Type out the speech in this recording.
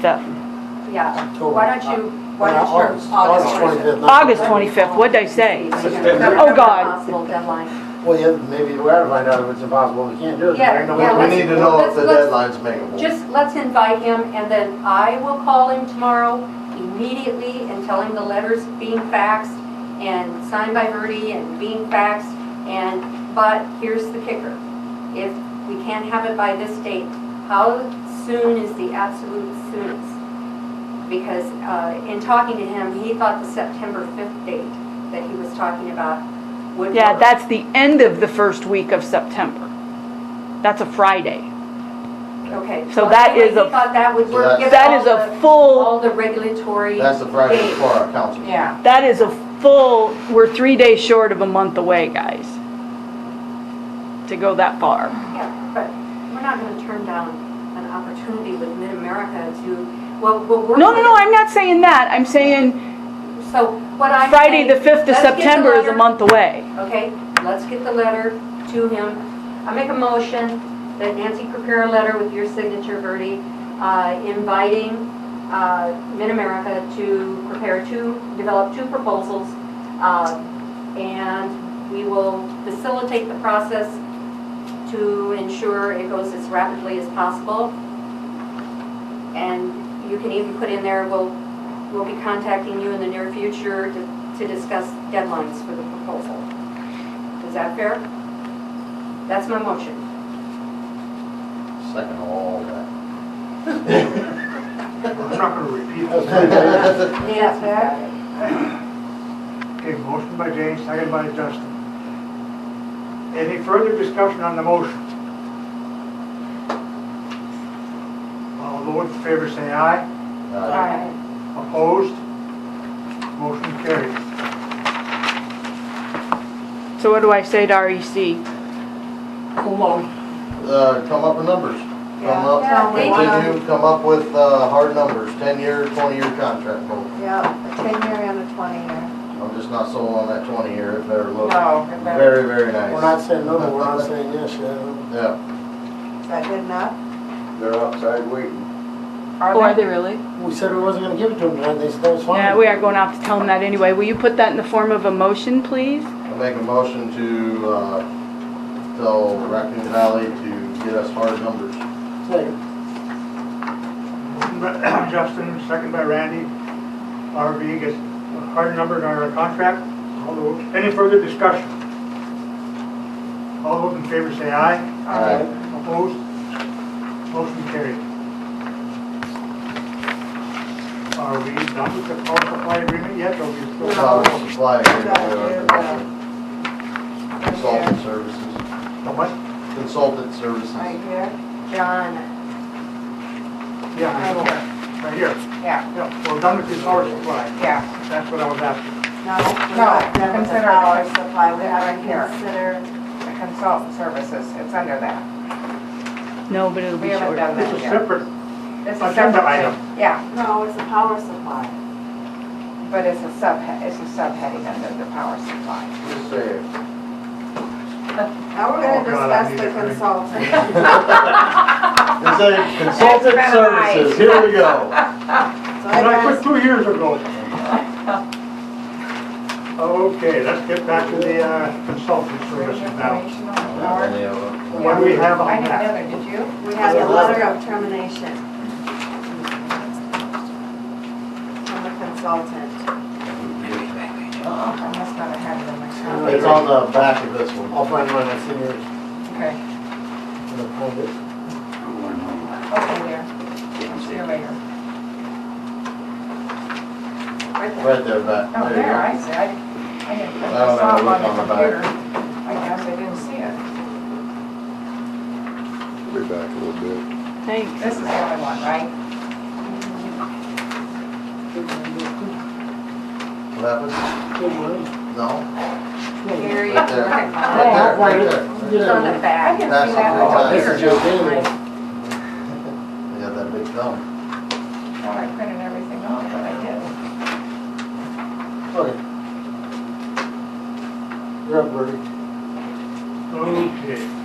25th, Yeah, why don't you, why Yeah, don't August you, Uh, August 25th. not- August 25th, what'd I say? Oh, God. Possible deadline. Well, yeah, maybe we ought to find out if it's impossible, we can't do it. Yeah, There ain't no yeah, way- We let's- need to know if the let's- deadline's makeable. Just let's invite him, and then I will call him tomorrow immediately and tell him the letter's being faxed and signed by Verdi and being faxed, and, but here's the kicker. If we can't have it by this date, how soon is the absolute soonest? Because uh, in talking to him, he thought the September 5th date that he was talking about would work. Yeah, that's the end of the first week of September. That's a Friday. Okay. So Well, that anyway, is a- He thought that would So work. that's- given That all is a the- full, All the regulatory. That's the Friday dates. before our council. Yeah, that is a full, we're three days short of a month away, guys. To go that far. Yeah, but we're not going to turn down an opportunity with Mid-America to, well, we'll work. No, no, no, I'm not saying that, I'm saying with- So what I'm. Friday, the saying, 5th of let's get the September is a letter- month away. Okay, let's get the letter to him. I make a motion that Nancy prepare a letter with your signature, Verdi, uh, inviting uh, Mid-America to prepare two, develop two proposals. uh, And we will facilitate the process to ensure it goes as rapidly as possible. And you can even put in there, we'll, we'll be contacting you in the near future to to discuss deadlines for the proposal. Is that fair? That's my motion. Second all that. I'm not gonna repeat this. That's Yeah, fair. Okay, motion by Jane, second by Justin. Any further discussion on the motion? All those in favor say aye. it. all Uh, right. Opposed? Motion carries. So what do I say to E REC? Cool. on. uh, Come up with numbers. Come Yeah, up, they continue, come up with uh, hard numbers, 10-year, 20-year contract goal. Yeah, a ten-year and a twenty-year. I'm just not sold on that 20-year, it better look No, it very, better- very nice. We're not saying no, but we're not saying yes, Uh, yeah. Yeah. Is that good enough? They're outside waiting. Are they? really? We said we wasn't gonna give it to them tonight, they said that was fine. Yeah, we are going out to tell them that anyway. Will you put that in the form of a motion, please? I make a motion to uh, tell Raccoon Valley to get us hard numbers. Second. Motion by Justin, second by Randy. RV gets a hard number on our contract. All those, any further discussion? All those in favor say aye. Alright. Opposed? Motion carried. Are we done with the power supply agreement yet, or we still? Power supply Got you, agreement. uh, Consultant services, How much? consultant services. Right here, John, Yeah, I know, right here. Yeah, Yeah, we're done with the power supply. yeah. That's what I was asking. no, we're No, not done with the consider it. power supply, we We're haven't here. considered, The consultant services, it's under that. No, but it'll We be haven't short. done It's that a yet. separate, It's agenda separate item. thing. Yeah, no, it's a power supply. but it's a subhead, it's a subheading under the power supply. Just say it. Now we're Oh, gonna God, I discuss need the a drink. consultant. It said consultant That's right. services, here we go. So but I I put two years ago. Okay, let's get back to the uh, consulting services now. Information on the board. What do we have I on had that? another, did you? guess we have the letter of termination. From the consultant. I must not have had it in my copy. It's on the back of this one. I'll find mine, I see yours. Okay, I'll find it. okay, there. See you later. Right there. Right there, back. Oh, There you go. there, I see, I, I didn't, I I don't saw have a it on look the on the back. computer. I guess I didn't see it. Be back a little bit. Thanks. This is the only one, right? What happened? Good one. No? here you Right there. go. Right there, right there. It's on the I back. didn't That's see that the on one. the This computer. is your thing. You got that big thumb. Well, I printed everything off, but I didn't. Okay. You're up, Bertie. Okay.